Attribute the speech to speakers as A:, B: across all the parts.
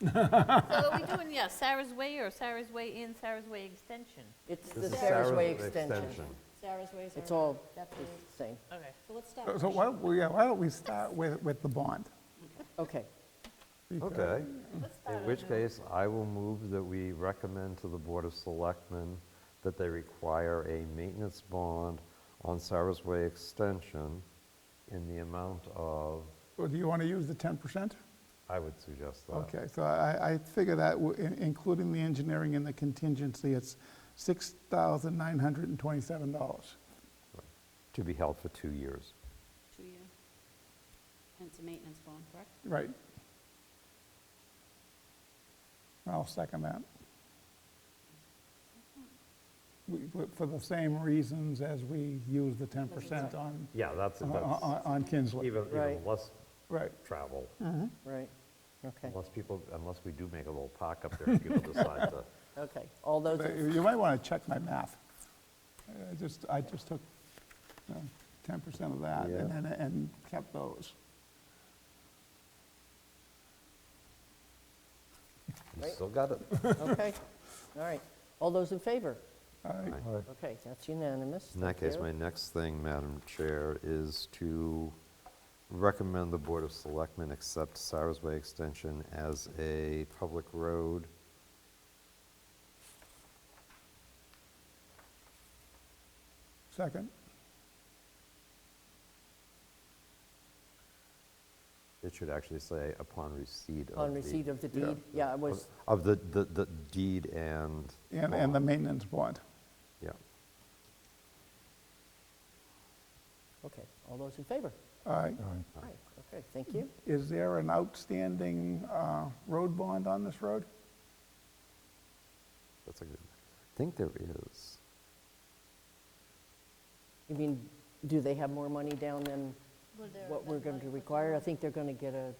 A: So are we doing, yeah, Sarah's Way or Sarah's Way in, Sarah's Way extension?
B: It's
C: This
B: the
C: is
B: Sarah's Way extension.
D: Sarah's Ways
B: It's
D: are-
B: all
D: That's
B: the
D: the-
B: same.
A: Okay.
D: So let's stop.
E: So- So why don't we, yeah, why don't we start with, with the bond?
B: Okay,
E: Because-
C: Okay.
A: Let's start
C: In
A: on
C: which
A: the-
C: case, I will move that we recommend to the Board of Selectmen that they require a maintenance bond on Cyrus Way Extension in the amount of,
E: Well, Do you want to use the 10%?
C: I would suggest that.
E: Okay, so I, I figure that, w- in- including the engineering and the contingency, it's $6,927.
C: To be held for two years.
D: Two year. And it's a maintenance bond, correct?
E: Right. I'll second that. We- we- For the same reasons as we use the 10% on,
C: Yeah, that's,
E: on-
C: that's
E: on on Kinsley.
C: even, even
B: Uh, Right.
C: less
E: Right.
C: travel,
B: right, okay,
C: unless people, unless we do make a little park up there and people decide to.
B: okay. All those,
E: But
B: in-
E: You might want to check my math. I just, I just took you know, 10% of that and
C: Yeah.
E: then, and kept those.
C: You
B: Right.
C: still got it.
B: okay, all right. All those in favor?
E: All right.
B: Okay, that's unanimous.
C: In that
B: Thank
C: case,
B: you.
C: my next thing, Madam Chair, is to recommend the Board of Selectmen accept Cyrus Way Extension as a public road.
E: Second,
C: It should actually say upon receipt of the...
B: On receipt of the deed, yeah, I was,
C: Of the, the the deed and...
E: and, and the
C: bond.
E: maintenance bond.
C: Yeah.
B: okay, all those in favor?
E: All right.
B: All right, okay, thank you.
E: Is there an outstanding uh, road bond on this road?
C: That's a good, I think there is.
B: You mean, do they have more money down than what we're going to require? I think they're going to get a,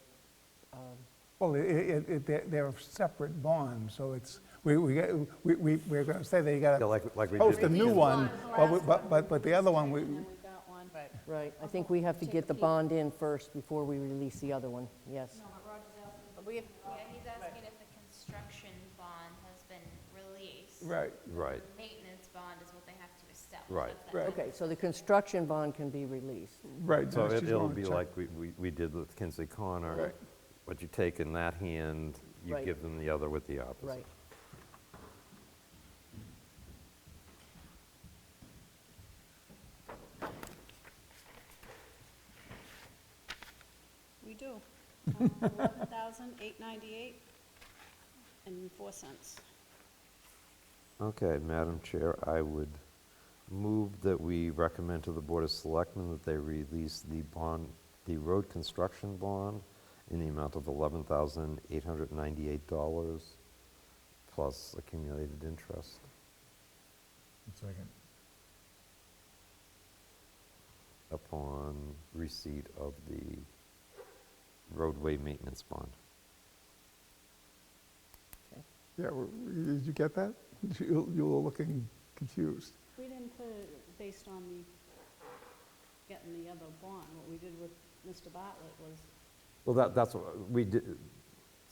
E: Well, i- i- it, it, they're- they're separate bonds, so it's, we, we, got- we, we- we're going to say they got
C: Yeah,
E: to
C: like, like we did...
E: post a
C: with
E: new
C: the-
E: one,
A: one,
E: but, we-
A: last
E: but, but but the other one, we,
D: And then we got one.
A: Right.
B: right, I think we have to get the bond in first before we release the other one, yes.
A: We have-
F: Yeah, he's asking if the construction bond has been released.
E: right,
C: Right,
F: Maintenance bond is what they have to establish.
C: Right.
F: That's that
E: Right.
B: Okay, so the construction bond can be released.
E: right.
C: so
E: I
C: it-
E: just
C: it'll
E: wanna
C: be
E: check.
C: like we, we we did with Kinsley Connor.
E: Right.
C: What you take in that hand, you
B: Right.
C: give them the other with the opposite.
B: Right.
D: We do. Um, Eleven thousand eight ninety-eight and four cents.
C: Okay, Madam Chair, I would move that we recommend to the Board of Selectmen that they release the bond, the road construction bond in the amount of $11,898 plus accumulated interest. Second. Upon receipt of the roadway maintenance bond.
B: Okay.
E: Yeah, w- did you get that? You you were looking confused.
D: We didn't put it based on the, getting the other bond. What we did with Mr. Bartlett was.
C: Well, that, that's, what we did,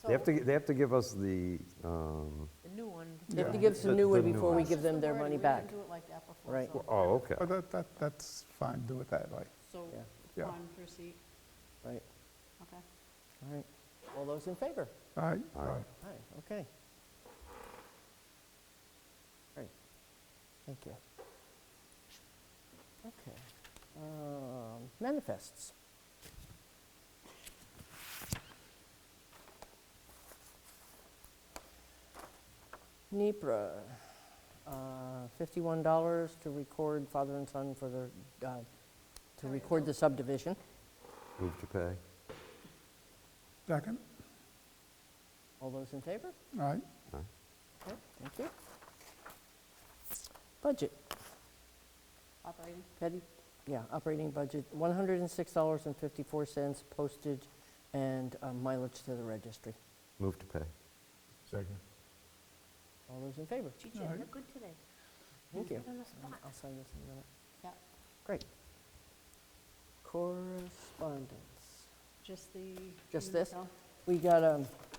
C: they have
D: So-
C: to, they have to give us the, um,
A: The new one.
B: They have to
E: Yeah.
B: give us a
C: The-
B: new
C: the
B: one
C: new
B: before
C: one.
B: we
D: It's
B: give
D: just
B: them
D: the
B: their
D: wording.
B: money
D: We
B: back.
D: didn't do it like that before.
B: Right.
D: so-
C: oh, okay.
E: But that, that, that's fine, do it that way.
D: So,
E: Yeah.
D: bond receipt,
B: Right,
D: okay.
B: all right. All those in favor?
E: All right?
C: All right.
B: All right, okay. All right, thank you. Okay, um, manifests. NEPRA, uh, $51 to record father and son for the, uh, to record the subdivision.
C: Move to pay.
E: Second,
B: All those in favor?
E: all right?
B: Okay, thank you. Budget.
D: Operating,
B: Petty, yeah, operating budget, $106.54 postage and uh, mileage to the registry.
C: Move to pay.
E: Second.
B: All those in favor?
A: Gee, Jen,
E: All right.
A: you're good today.
B: Thank you.
A: On the spot.
B: I'll sign this in a minute.
D: yeah,
B: Great. Correspondence.
D: just the.
B: Just
D: no,
B: this? We got um,